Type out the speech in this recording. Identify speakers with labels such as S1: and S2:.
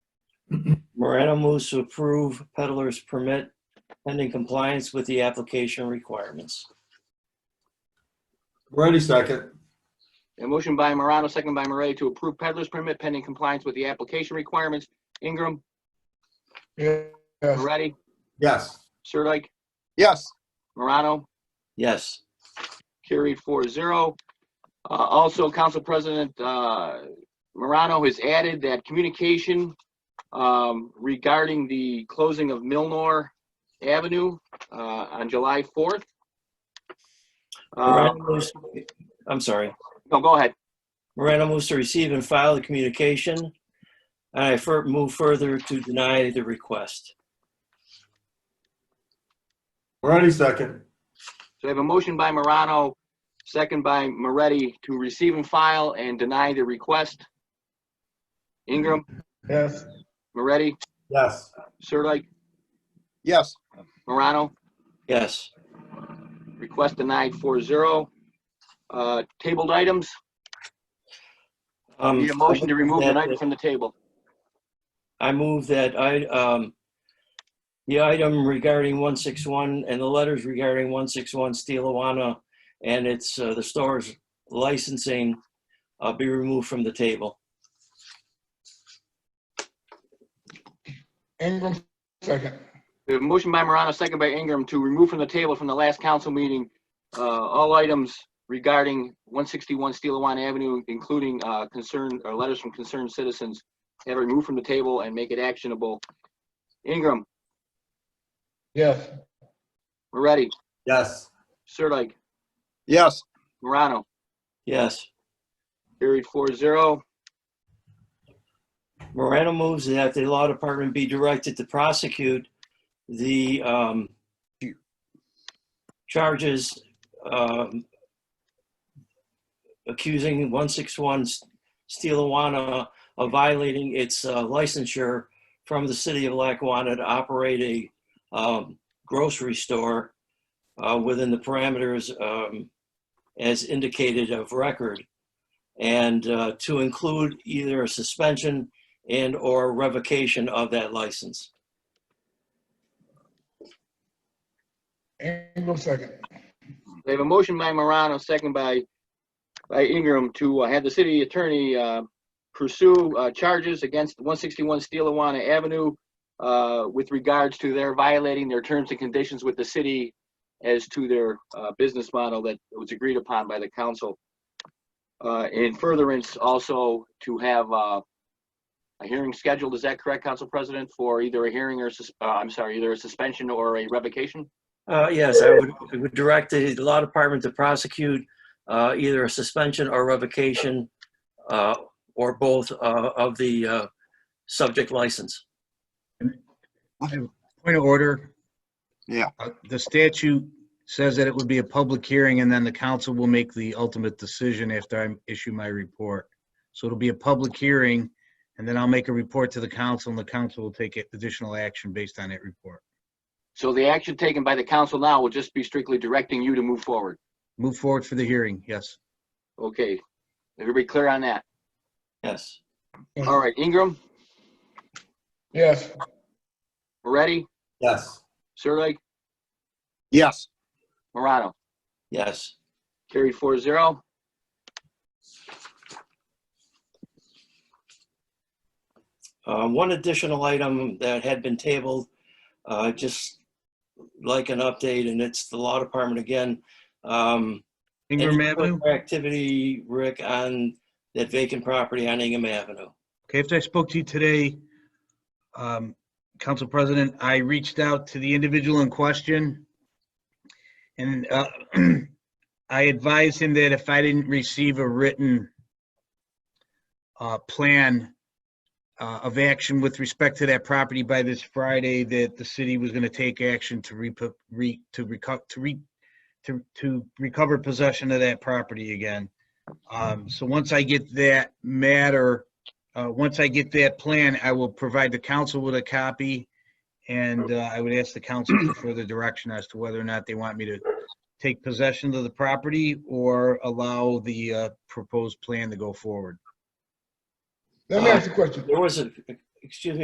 S1: Morano moves to approve peddler's permit pending compliance with the application requirements.
S2: Moretti second.
S3: A motion by Morano, second by Moretti to approve peddler's permit pending compliance with the application requirements. Ingram,
S4: Yes.
S3: Moretti,
S2: Yes.
S3: Sirdike,
S5: yes,
S3: Morano,
S1: Yes,
S3: carried four zero. Uh, also, Council President, uh, Morano has added that communication, um, regarding the closing of Milnor Avenue, uh, on July fourth. Uh,
S1: Morano moves- I'm sorry.
S3: no, go ahead.
S1: Morano moves to receive and file the communication. And I fur- move further to deny the request.
S2: Moretti second.
S3: So I have a motion by Morano, second by Moretti to receive and file and deny the request. Ingram,
S4: Yes.
S3: Moretti,
S2: Yes.
S3: Sirdike,
S5: yes,
S3: Morano,
S1: Yes,
S3: request denied four zero. Uh, tabled items,
S1: um,
S3: need a motion to remove an item from the table.
S1: I move that I, um, the item regarding 161 and the letters regarding 161 Steelawana and it's, uh, the store's licensing, uh, be removed from the table.
S4: Ingram, second.
S3: We have a motion by Morano, second by Ingram to remove from the table from the last council meeting, uh, all items regarding one sixty-one Steelawana Avenue, including, uh, concern, or letters from concerned citizens. Have it removed from the table and make it actionable. Ingram,
S4: Yes.
S3: Moretti,
S2: Yes.
S3: Sirdike,
S5: yes,
S3: Morano,
S1: Yes.
S3: carried four zero.
S1: Morano moves that the law department be directed to prosecute the um, charges um, accusing 161 Steelawana of violating its uh, licensure from the city of Lackawanna to operate a um, grocery store uh, within the parameters um, as indicated of record, and uh, to include either a suspension and/or revocation of that license.
S4: Ingram, second.
S3: They have a motion by Morano, second by, by Ingram to uh, have the city attorney, uh, pursue, uh, charges against one sixty-one Steelawana Avenue, uh, with regards to their violating their terms and conditions with the city as to their, uh, business model that was agreed upon by the council. Uh, in furtherance also to have, uh, a hearing scheduled, is that correct, Council President, for either a hearing or, sus- uh, I'm sorry, either a suspension or a revocation?
S1: Uh, Yes, I would- I would direct the law department to prosecute uh, either a suspension or revocation uh, or both uh, of the uh, subject license.
S6: Point of order.
S5: Yeah.
S6: Uh, The statute says that it would be a public hearing and then the council will make the ultimate decision after I issue my report. So it'll be a public hearing and then I'll make a report to the council and the council will take additional action based on that report.
S3: So the action taken by the council now will just be strictly directing you to move forward.
S6: Move forward for the hearing, yes.
S3: Okay. Everybody clear on that?
S1: Yes,
S3: All right, Ingram,
S4: Yes.
S3: Moretti,
S2: Yes.
S3: Sirdike,
S5: yes,
S3: Morano.
S1: yes.
S3: Carried four zero.
S1: Uh, One additional item that had been tabled, uh, just like an update, and it's the law department again. Um,
S6: Ingram
S1: any
S6: Avenue?
S1: further Activity, Rick, on that vacant property on Ingham Avenue.
S6: Okay, after I spoke to you today, um, Council President, I reached out to the individual in question. And uh, I advised him that if I didn't receive a written uh, plan uh, of action with respect to that property by this Friday, that the city was going to take action to repo- re, to reco- to re, to, to recover possession of that property again. Um, So once I get that matter uh, Once I get that plan, I will provide the council with a copy, and uh, I would ask the council for further direction as to whether or not they want me to take possession of the property or allow the uh, proposed plan to go forward.
S4: Let me ask you a question.
S1: There was Uh, a, excuse me,